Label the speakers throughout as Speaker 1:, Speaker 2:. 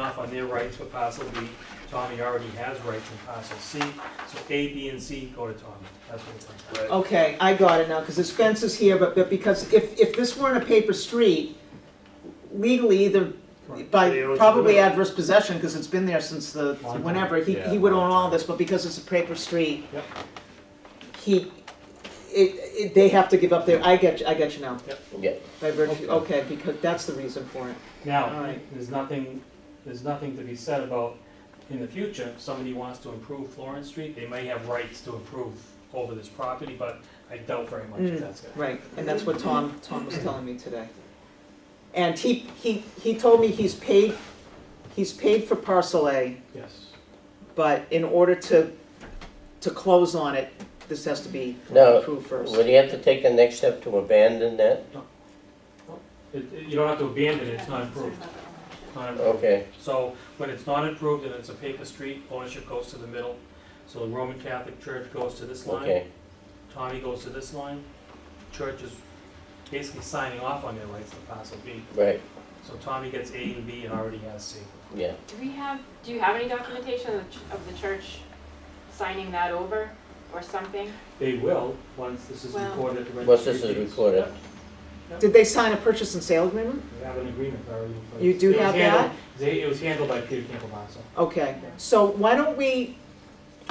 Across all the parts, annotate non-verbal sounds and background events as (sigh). Speaker 1: off on their rights for parcel B. Tommy already has rights in parcel C, so A, B, and C go to Tommy. That's what it's like.
Speaker 2: Right.
Speaker 3: Okay, I got it now, because this fence is here, but, but because if, if this weren't a paper street, legally either,
Speaker 1: They
Speaker 3: by
Speaker 1: always
Speaker 3: probably
Speaker 1: do it.
Speaker 3: adverse possession, because it's been there since the,
Speaker 1: Long time.
Speaker 3: whenever, he,
Speaker 4: Yeah,
Speaker 3: he would
Speaker 4: long
Speaker 3: own all
Speaker 4: time.
Speaker 3: this, but because it's a paper street,
Speaker 1: Yep.
Speaker 3: he, it, it, they have to give up their, I get, you- I get you now.
Speaker 1: Yep.
Speaker 5: Yeah.
Speaker 3: By virtue,
Speaker 1: Okay.
Speaker 3: okay, because that's the reason for it. All
Speaker 1: Now,
Speaker 3: right.
Speaker 1: there's nothing, there's nothing to be said about, in the future, if somebody wants to improve Florence Street, they may have rights to improve over this property, but I doubt very much
Speaker 3: Mm,
Speaker 1: if that's gonna.
Speaker 3: Right, and that's what Tom, Tom was telling me today. And he, he, he told me he's paid, he's paid for parcel A,
Speaker 1: Yes.
Speaker 3: but in order to, to close on it, this has to be
Speaker 5: Now,
Speaker 3: approved first.
Speaker 5: would he have to take the next step to abandon that?
Speaker 1: It, it- you don't have to abandon it, it's not improved. It's not improved.
Speaker 5: Okay,
Speaker 1: So when it's not improved and it's a paper street, ownership goes to the middle. So the Roman Catholic Church goes to this line,
Speaker 5: okay,
Speaker 1: Tommy goes to this line. Church is basically signing off on their rights to parcel B.
Speaker 5: right,
Speaker 1: So Tommy gets A and B and already has C.
Speaker 5: yeah.
Speaker 6: Do we have, do you have any documentation of the ch- of the church signing that over or something?
Speaker 1: They will, once this is
Speaker 6: Wow.
Speaker 1: recorded at the
Speaker 5: Once this
Speaker 1: registry of
Speaker 5: is
Speaker 1: deeds.
Speaker 5: recorded.
Speaker 3: Did they sign a purchase and sale agreement?
Speaker 1: We have an agreement already. in place.
Speaker 3: You do
Speaker 1: It was
Speaker 3: have
Speaker 1: handled- they- It was handled by Peter Campbell Masso.
Speaker 3: Okay, so why don't we,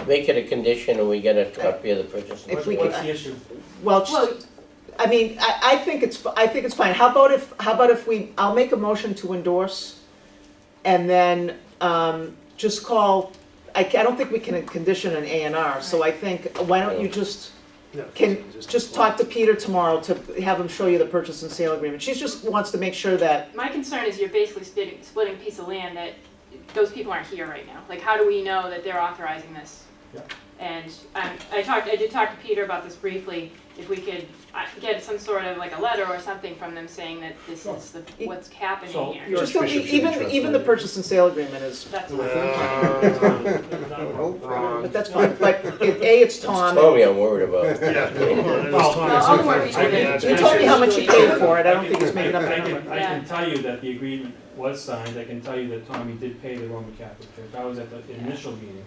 Speaker 5: Make it a condition and we get a copy of the purchase. and
Speaker 3: If we
Speaker 5: sale.
Speaker 1: What's the issue?
Speaker 3: well,
Speaker 6: Well,
Speaker 3: I mean, I, I think it's, I think it's fine. How about if, how about if we, I'll make a motion to endorse, and then, um, just call, I, ca- I don't think we can condition an A and R, so I think, why don't you just, can, just talk to Peter tomorrow to have him show you the purchase and sale agreement. She just wants to make sure that,
Speaker 6: my concern is you're basically splitting, splitting a piece of land that those people aren't here right now. Like, how do we know that they're authorizing this?
Speaker 1: Yeah.
Speaker 6: And um, I talked, I did talk to Peter about this briefly, if we could uh, get some sort of like a letter or something from them saying that this is the, what's
Speaker 1: So-
Speaker 6: happening here.
Speaker 3: just don't- e-
Speaker 4: Bishop's
Speaker 3: even,
Speaker 4: interest,
Speaker 3: even the
Speaker 4: right?
Speaker 3: purchase and sale agreement is,
Speaker 6: That's
Speaker 1: Uh,
Speaker 6: my
Speaker 3: but that's fine, but it, A, it's
Speaker 5: It's
Speaker 3: Tom.
Speaker 5: Tommy I'm worried
Speaker 2: (laughs)
Speaker 5: about. (laughs)
Speaker 6: Well, I'll work with it.
Speaker 3: You told me how much he paid for it, I don't think he's making up
Speaker 1: I
Speaker 3: a
Speaker 5: (laughs)
Speaker 1: can,
Speaker 3: number.
Speaker 1: I can tell you that the agreement was signed, I can tell you that Tommy did pay the Roman Catholic Church, I was at the initial meeting.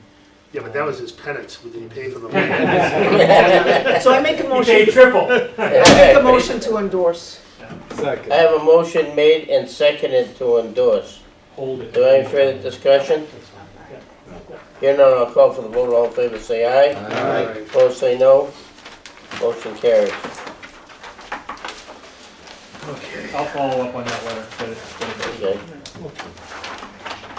Speaker 2: Yeah, but that was his penance, we didn't
Speaker 3: (laughs)
Speaker 2: pay for the land.
Speaker 1: He
Speaker 3: So I make a
Speaker 1: paid
Speaker 3: motion, (laughs)
Speaker 1: triple.
Speaker 3: I make a motion to endorse.
Speaker 4: Second.
Speaker 5: I have a motion made and seconded to endorse.
Speaker 1: Hold it.
Speaker 5: Do I have further discussion?
Speaker 1: That's fine.
Speaker 5: Here none, I'll call for the vote, all in favor say aye.
Speaker 4: Aye.
Speaker 5: Opposed say no. Motion carries.
Speaker 1: I'll follow up on that letter, but it's- but it's-
Speaker 5: Okay.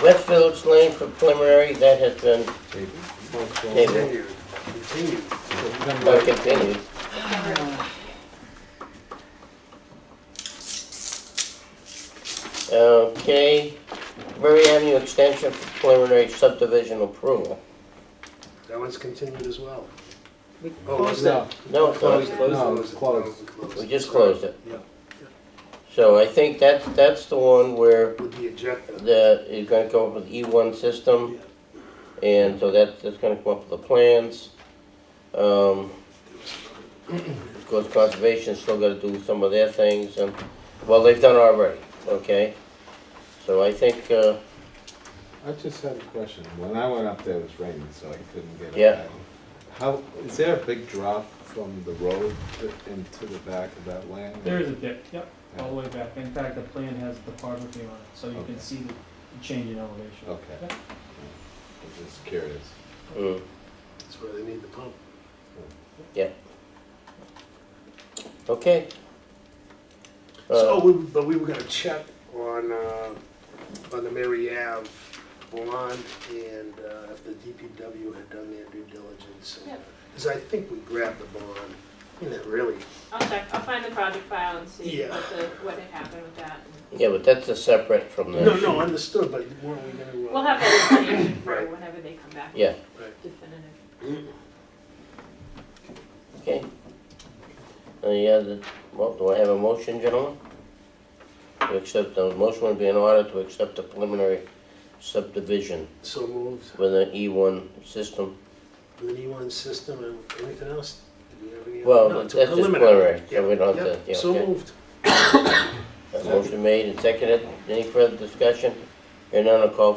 Speaker 5: West Village Lane for preliminary, that has been tabled,
Speaker 2: Continued, continued.
Speaker 5: uh, continued. Okay, Murray Avenue Extension for preliminary subdivision approval.
Speaker 2: That one's continued as well.
Speaker 3: We
Speaker 2: Oh,
Speaker 3: closed
Speaker 4: No,
Speaker 3: it.
Speaker 5: No, it's not.
Speaker 4: No,
Speaker 2: it
Speaker 4: it's
Speaker 2: was-
Speaker 4: closed.
Speaker 2: no, it was
Speaker 5: we just closed it.
Speaker 2: Yeah.
Speaker 5: So I think that's, that's the one where
Speaker 2: With the ejecta.
Speaker 5: the, it's gonna come up with E one system. And so that, that's gonna come up with the plans. Um, of course, conservation's still gotta do some of their things and, well, they've done already, okay? So I think, uh,
Speaker 4: I just had a question. When I went up there, it was raining, so I couldn't get up.
Speaker 5: Yeah.
Speaker 4: that. How, is there a big drop from the road to- into the back of that land?
Speaker 1: There is a dip, yep, all the way back. In fact, the plan has the topography on it, so you
Speaker 4: Okay.
Speaker 1: can see the change in elevation.
Speaker 4: Okay.
Speaker 1: Yep.
Speaker 4: I'm just curious.
Speaker 5: mm,
Speaker 2: That's where they need the pump.
Speaker 5: okay.
Speaker 2: So,
Speaker 5: Uh,
Speaker 2: we, but we were gonna check on, uh, on the Mary Ave bond and, uh, if the DPW had done their due diligence.
Speaker 6: Yep.
Speaker 2: Cause I think we grabbed the bond, and it really,
Speaker 6: I'll check, I'll find the project file and see
Speaker 2: Yeah.
Speaker 6: what the, what had happened with that.
Speaker 5: Yeah, but that's a separate from the.
Speaker 2: no, no, understood, but weren't we gonna? uh,
Speaker 6: We'll have that information for
Speaker 2: Right.
Speaker 6: whenever they come back.
Speaker 5: Yeah.
Speaker 2: Right.
Speaker 6: Definitive.
Speaker 5: Okay. Any other, Uh, well, do I have a motion, gentlemen? To accept, the motion would be in order to accept the preliminary subdivision
Speaker 2: So moved.
Speaker 5: with an E one system.
Speaker 2: with an E1 E system and anything else? Did we have any other-
Speaker 5: Well,
Speaker 2: No,
Speaker 5: that's
Speaker 2: it's a
Speaker 5: just preliminary, so we don't have to,
Speaker 2: Yep,
Speaker 5: yeah,
Speaker 2: so
Speaker 5: okay.
Speaker 2: moved.
Speaker 5: A Motion made and seconded, any further discussion? Hearing none, I'll call